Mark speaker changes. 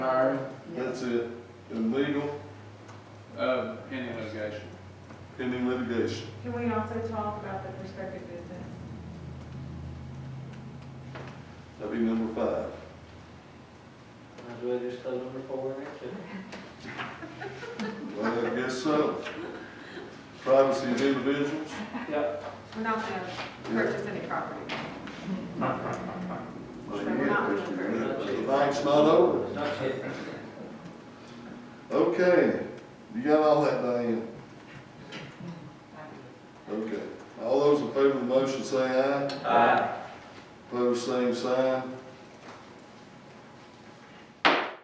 Speaker 1: Hiring,
Speaker 2: Yeah.
Speaker 1: that's it, and legal
Speaker 3: Uh, pending litigation.
Speaker 1: pending litigation.
Speaker 2: Can we also talk about the prospective business?
Speaker 1: That'd be number five.
Speaker 4: Might as well just throw number four in there too.
Speaker 1: Well, I guess so. Privacy of individuals,
Speaker 4: Yep.
Speaker 2: We're not gonna purchase any property.
Speaker 1: well, you get what you want, but the bank's not over.
Speaker 4: Not yet.
Speaker 1: Okay, you got all that, Diane? Okay, all those in favor of the motion say aye,
Speaker 4: Aye.
Speaker 1: opposed, same sign,